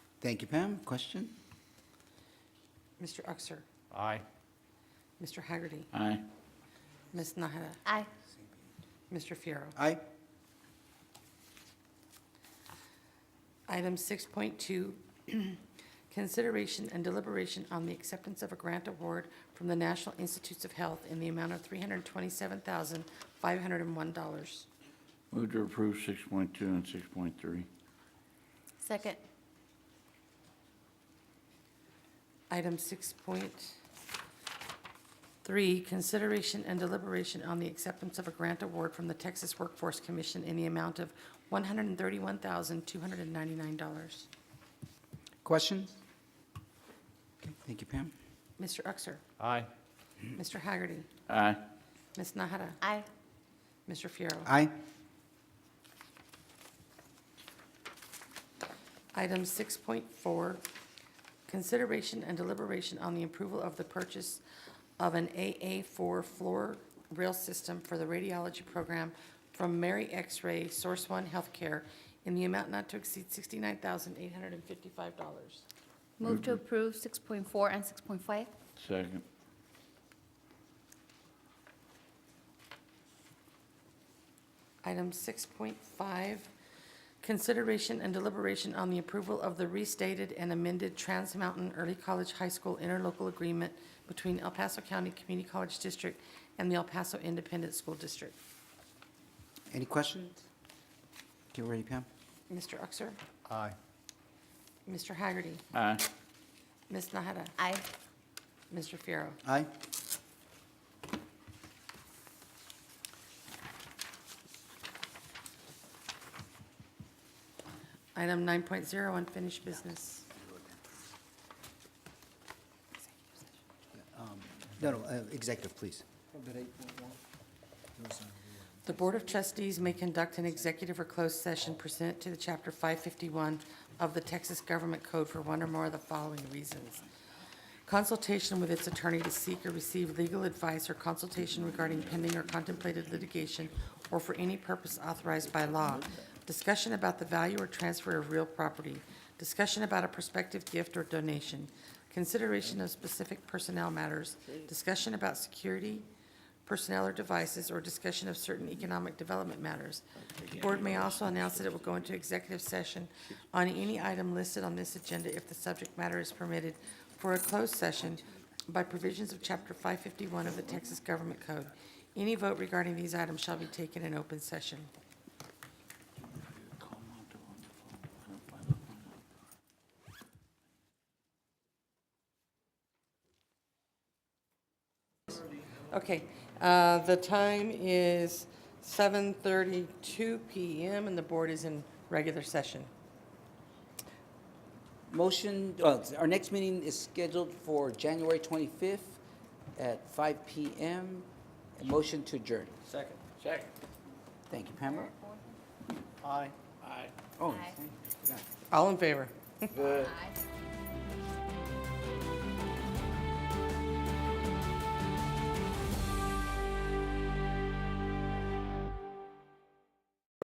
Thank you, Pam. Question? Mr. Uxer, Aye. Mr. Hagerty, Aye. Ms. Nahada, Aye. Mr. Fierro. Aye. Item 6.2, consideration and deliberation on the acceptance of a grant award from the National Institutes of Health in the amount of $327,501. Move to approve 6.2 and 6.3. Second. Item 6.3, consideration and deliberation on the acceptance of a grant award from the Texas Workforce Commission in the amount of $131,299. Questions? Okay, Thank you, Pam. Mr. Uxer, Aye. Mr. Hagerty, Aye. Ms. Nahada, Aye. Mr. Fierro. Aye. Item 6.4, consideration and deliberation on the approval of the purchase of an AA4 floor rail system for the radiology program from Mary X-Ray Source One Healthcare in the amount not to exceed $69,855. Move to approve 6.4 and 6.5. Second. Item 6.5, consideration and deliberation on the approval of the restated and amended Trans Mountain Early College High School interlocal agreement between El Paso County Community College District and the El Paso Independent School District. Any questions? Get ready, Pam. Mr. Uxer, Aye. Mr. Hagerty, Aye. Ms. Nahada, Aye. Mr. Fierro. Aye. Item 9.0, unfinished business. No, no, uh, executive, please. The Board of Trustees may conduct an executive or closed session pursuant to the Chapter 551 of the Texas Government Code for one or more of the following reasons. Consultation with its attorney to seek or receive legal advice or consultation regarding pending or contemplated litigation or for any purpose authorized by law. Discussion about the value or transfer of real property. Discussion about a prospective gift or donation. Consideration of specific personnel matters. Discussion about security, personnel or devices, or discussion of certain economic development matters. The board may also announce that it will go into executive session on any item listed on this agenda if the subject matter is permitted for a closed session by provisions of Chapter 551 of the Texas Government Code. Any vote regarding these items shall be taken in open session. Okay, uh, the time is 7:32 PM, and the board is in regular session. Motion, uh, our next meeting is scheduled for January 25th at 5 PM. A Motion to adjourn. Second. Second. Thank you, Pamela. Aye. Aye. Oh, Aye. All in favor? Aye.